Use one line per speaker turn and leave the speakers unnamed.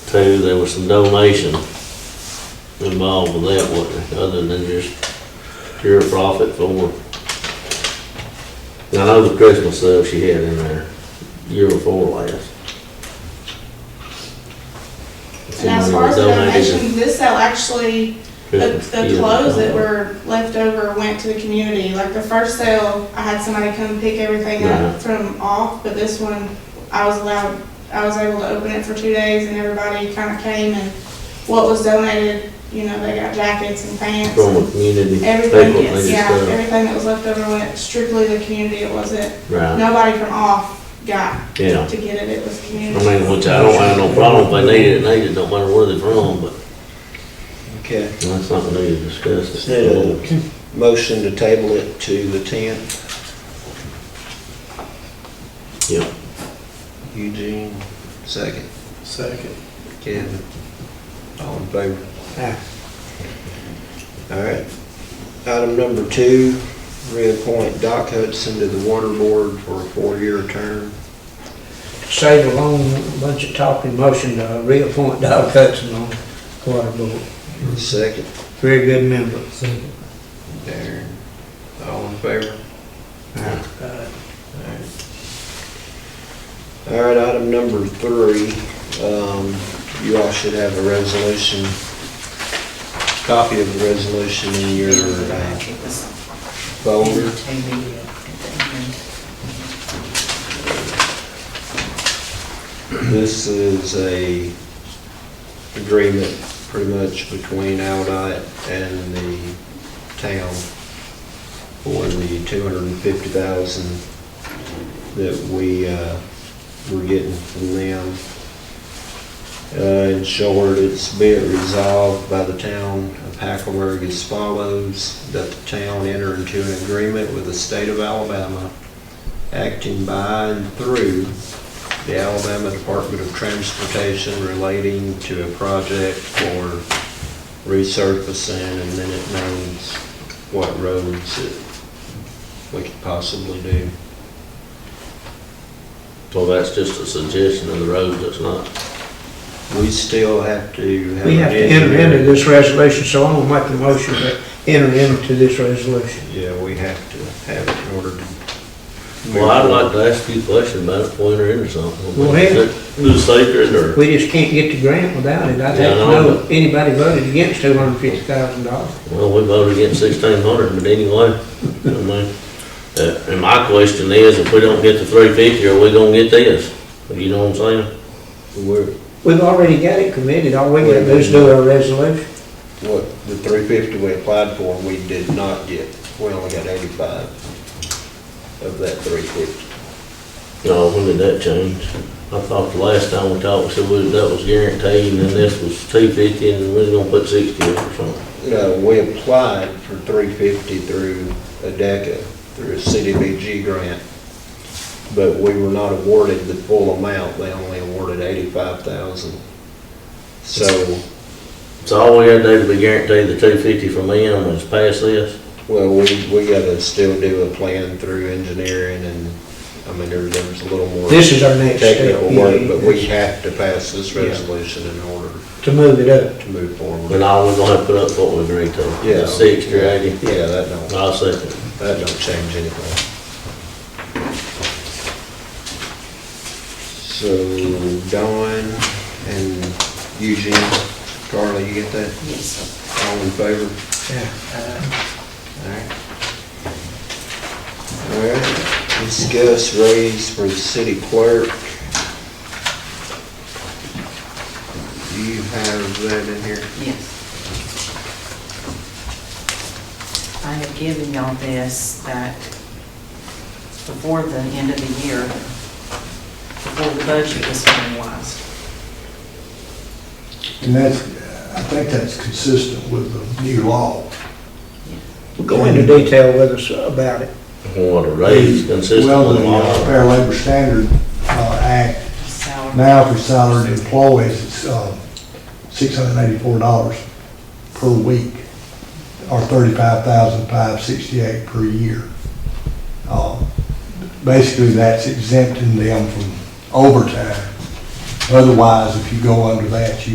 Two, there was some donation involved with that, wasn't there, other than just pure profit for. I know the Christmas stuff she had in there, year before last.
And as far as the donations, this sale actually, the,
Christmas
the
year
clothes that
before.
were left over went to the community. Like the first sale, I had somebody come pick everything
Yeah.
up from off, but this one, I was allowed, I was able to open it for two days and everybody kind of came and what was donated, you know, they got jackets and pants.
From
and
the community,
Everything,
people needed
yeah,
stuff,
everything that was left over went strictly to the community. It wasn't,
right,
nobody from off got
yeah.
to get it, it was
I
community.
mean, which I don't have no problem, if they need it, need it, no matter where they're from, but
Okay,
that's not what we need to discuss.
is that a motion to table it to the tenth?
Yeah.
Eugene, second.
Second.
Kevin, all in favor? All right. Item number two, reappoint Doc Hudson to the Water Board for a four-year term.
Save a long bunch of talking motion to reappoint Doc Hudson on water board.
Second,
Very good member.
Darren, all in favor?
Uh,
All right, item number three, um, you all should have a resolution, copy of the resolution in your uh, folder. This is a agreement pretty much between Aldite and the town for the two hundred and fifty thousand that we, uh, we're getting from them. Uh, in short, it's be it resolved by the town of Hackleburg as follows, that the town enter into an agreement with the state of Alabama acting by and through the Alabama Department of Transportation relating to a project for resurfacing, and then it knows what roads that we could possibly do.
So that's just a suggestion of the roads, that's not,
We still have to have.
We have to
an
enter
engineer.
into this resolution, so I'm gonna make the motion to enter into this resolution.
Yeah, we have to have it in order to.
well, I'd like to ask you a question about it, point her in or something.
Go ahead.
Do sacred or,
We just can't get the grant without it. I
Yeah, I
don't
know,
know if anybody voted against two hundred and fifty thousand dollars.
well, we voted against sixteen hundred, but anyway, I mean, uh, and my question is, if we don't get the three fifty, are we gonna get this? You know what I'm saying?
We're,
We've already got it committed. All we gotta do is do our resolution.
what, the three fifty we applied for, we did not get. We only got eighty-five of that three fifty.
No, when did that change? I thought the last time we talked, we said we- that was guaranteed, and then this was two fifty, and we're gonna put sixty up or something.
No, we applied for three fifty through ADECA, through a CDBG grant, but we were not awarded the full amount, they only awarded eighty-five thousand. So,
So all we had to do to be guaranteed the two fifty from them was pass this?
well, we, we gotta still do a plan through engineering and, I mean, there, there was a little more
This is our next step.
technical
yeah,
work, but we
yeah,
have to pass this
Yeah.
resolution in order
To move it up.
to move
And
forward.
all we're gonna have to put up what we agreed to.
Yeah.
Sixty or eighty.
Yeah, that don't.
I'll second.
That don't change anything. So Dawn and Eugene, Carla, you get that?
Yes,
All in favor?
Yeah.
Alright. Alright, discuss raise for the city clerk. Do you have that in here?
yes. I have given y'all this that before the end of the year, before the budget was finalized.
And that's, I think that's consistent with the new law.
We'll go into detail with us about it.
What a raise consistent
Well,
with
the uh,
all.
Fair Labor Standard uh, Act,
Salary-
now for salaried employees, it's um, $684 per week, or $35,568 per year. Uh, Basically, that's exempting them from overtime Otherwise, if you go under that, you